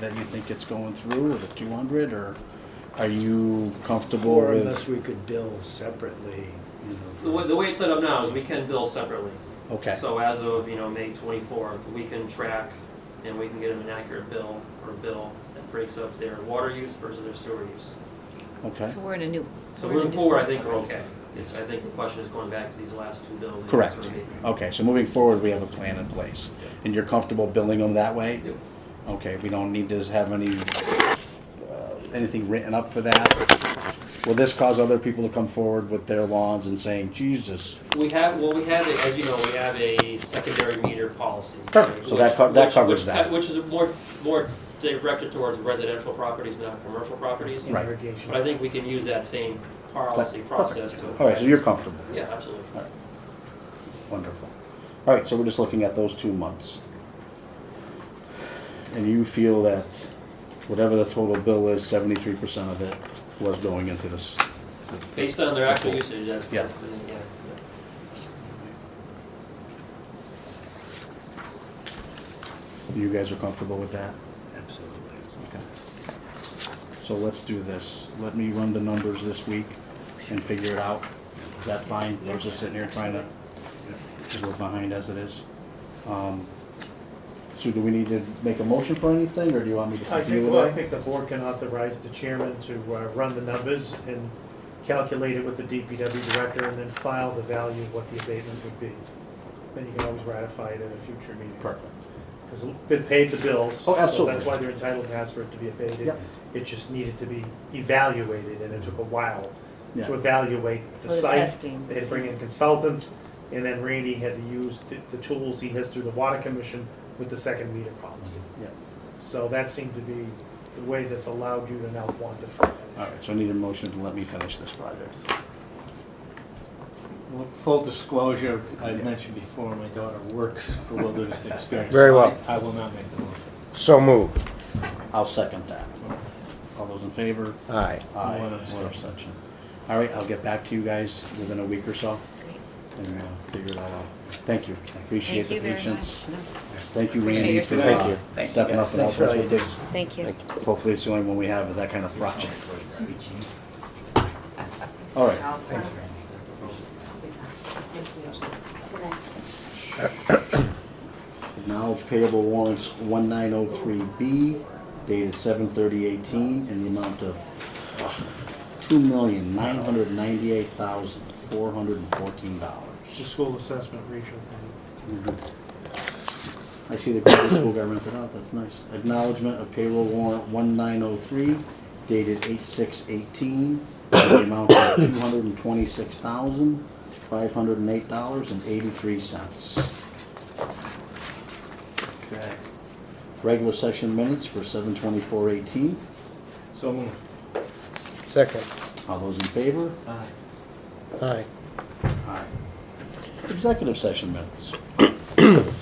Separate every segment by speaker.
Speaker 1: that you think it's going through, or the two hundred, or are you comfortable
Speaker 2: Or
Speaker 1: with?
Speaker 2: unless we could bill separately, you know.
Speaker 3: The way, the way it's set up now is we can bill separately.
Speaker 1: Okay,
Speaker 3: So as of, you know, May twenty-fourth, we can track and we can get them an accurate bill or bill that breaks up their water use versus their sewer use.
Speaker 1: okay,
Speaker 4: So we're in a new.
Speaker 3: So
Speaker 4: we're in a
Speaker 3: moving
Speaker 4: new
Speaker 3: forward, I
Speaker 4: cycle.
Speaker 3: think we're okay. Yes, I think the question is going back to these last two bills. and
Speaker 1: Correct.
Speaker 3: that's where
Speaker 1: okay, so moving forward, we have a plan in place, and you're comfortable billing them that way?
Speaker 3: we- Yep.
Speaker 1: Okay, we don't need to have any, uh, anything written up for that? Will this cause other people to come forward with their lawns and saying, Jesus?
Speaker 3: We have, well, we have, a- as you know, we have a secondary meter policy.
Speaker 1: Perfect. So that co-
Speaker 3: which-
Speaker 1: that
Speaker 3: which-
Speaker 1: covers
Speaker 3: which-
Speaker 1: that.
Speaker 3: Which is more, more directed towards residential properties, not commercial properties.
Speaker 1: Right.
Speaker 3: But I think we can use that same policy
Speaker 1: Perfect.
Speaker 3: process to.
Speaker 1: All right, so you're comfortable,
Speaker 3: Yeah, absolutely.
Speaker 1: wonderful. All right, so we're just looking at those two months. And you feel that whatever the total bill is, seventy-three percent of it was going into this.
Speaker 3: Based on their actual usage, that's,
Speaker 1: Yeah.
Speaker 3: that's, been- yeah.
Speaker 1: You guys are comfortable with that?
Speaker 2: Absolutely.
Speaker 1: Okay. So let's do this. Let me run the numbers this week and figure it out. Is that fine? We're just sitting here trying to, because we're behind as it is. Um, So do we need to make a motion for anything, or do you want me to
Speaker 5: I
Speaker 1: just deal
Speaker 5: think, well, I
Speaker 1: with it?
Speaker 5: think the board can authorize the chairman to uh, run the numbers and calculate it with the DPW director and then file the value of what the abatement would be. Then you can always ratify it at a future meeting.
Speaker 1: Perfect.
Speaker 5: Because they've paid the bills.
Speaker 1: Oh,
Speaker 5: So
Speaker 1: absolutely.
Speaker 5: that's why they're entitled to ask for it to be abated.
Speaker 1: Yep.
Speaker 5: It just needed to be evaluated, and it took a while
Speaker 1: Yeah.
Speaker 5: to evaluate the
Speaker 4: For the
Speaker 5: site.
Speaker 4: testing.
Speaker 5: They had to bring in consultants, and then Randy had to use the- the tools he has through the Water Commission with the second meter policy.
Speaker 1: Yeah.
Speaker 5: So that seemed to be the way that's allowed you to now quantify
Speaker 1: All
Speaker 5: that
Speaker 1: right, so I need a motion to let me finish this project.
Speaker 6: Well, Full disclosure, I mentioned before, my daughter works for Wilderness Experience.
Speaker 7: Very well.
Speaker 6: I I will not make the motion.
Speaker 7: So moved.
Speaker 1: I'll second that. All those in favor?
Speaker 7: Aye.
Speaker 1: Aye.
Speaker 6: One
Speaker 1: One abstention. All right, I'll get back to you guys within a week or so and uh, figure it all out. Thank you. I Appreciate
Speaker 4: Thank
Speaker 1: the
Speaker 4: you very
Speaker 1: patience.
Speaker 4: much. No,
Speaker 1: Thank you,
Speaker 4: Appreciate
Speaker 1: Randy,
Speaker 4: your
Speaker 1: for
Speaker 4: assistance.
Speaker 1: uh, stepping up and helping us with this.
Speaker 4: Thank you.
Speaker 1: Hopefully it's the only one we have of that kind of project. All right, acknowledge payable warrants one nine oh three B dated seven thirty eighteen in the amount of uh, two million nine hundred ninety-eight thousand four hundred and fourteen
Speaker 5: issue. The
Speaker 1: dollars.
Speaker 5: school assessment ratio thing.
Speaker 1: I see the Cleveland school got rented out, "Oh, that's nice. Acknowledgement of payroll warrant one nine oh three dated eight six eighteen, the amount of two hundred and twenty-six thousand, five hundred and eight dollars and eighty-three cents. Okay. Regular session minutes for seven twenty-four eighteen,
Speaker 6: So moved.
Speaker 7: Second.
Speaker 1: all those in favor?
Speaker 6: Aye.
Speaker 7: Aye.
Speaker 1: Aye. Executive session minutes.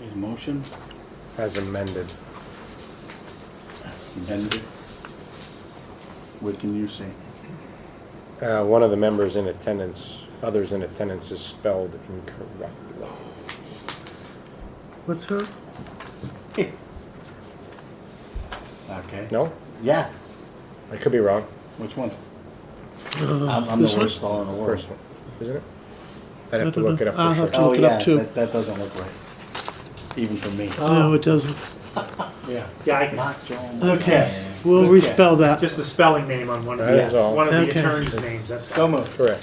Speaker 1: Need a motion?
Speaker 7: As amended.
Speaker 1: That's amended. What can you say?
Speaker 7: Uh, One of the members in attendance, others in attendance is spelled incorrectly. What's her?
Speaker 1: Okay.
Speaker 7: No?
Speaker 1: Yeah.
Speaker 7: I could be wrong.
Speaker 1: Which one?
Speaker 8: Uh,
Speaker 1: I'm, I'm the worst stall in the world.
Speaker 7: First one, isn't it? I'd have to look it up
Speaker 8: I'll
Speaker 7: for
Speaker 8: have
Speaker 7: sure.
Speaker 1: Oh
Speaker 8: Look it up
Speaker 1: yeah,
Speaker 8: too. Uh,
Speaker 1: that, that doesn't look right. Even for me.
Speaker 8: No, Oh, it doesn't.
Speaker 6: Yeah.
Speaker 5: Yeah, I can,
Speaker 1: Not Jones.
Speaker 8: Okay, we'll respell that.
Speaker 5: just the spelling name on one of
Speaker 7: That
Speaker 5: the,
Speaker 7: is all.
Speaker 5: one of the
Speaker 8: Okay.
Speaker 5: attorney's names, that's.
Speaker 6: So moved.
Speaker 7: Correct.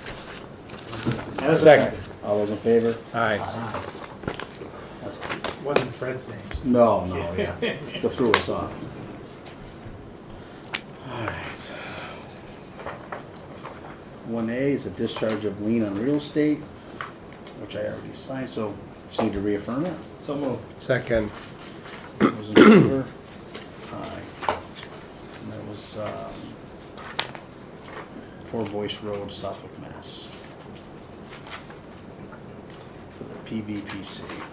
Speaker 1: Second. All those in favor?
Speaker 7: Aye.
Speaker 1: That's-
Speaker 5: Wasn't Fred's name. so-
Speaker 1: No, no, yeah. They threw us off. One A is a discharge of lien on real estate, which I already signed, so just need to reaffirm it.
Speaker 6: So moved.
Speaker 7: Second.
Speaker 1: Those in favor? Aye. And that was, um, Four Voice Road, Suffolk, Mass. For the PVPC.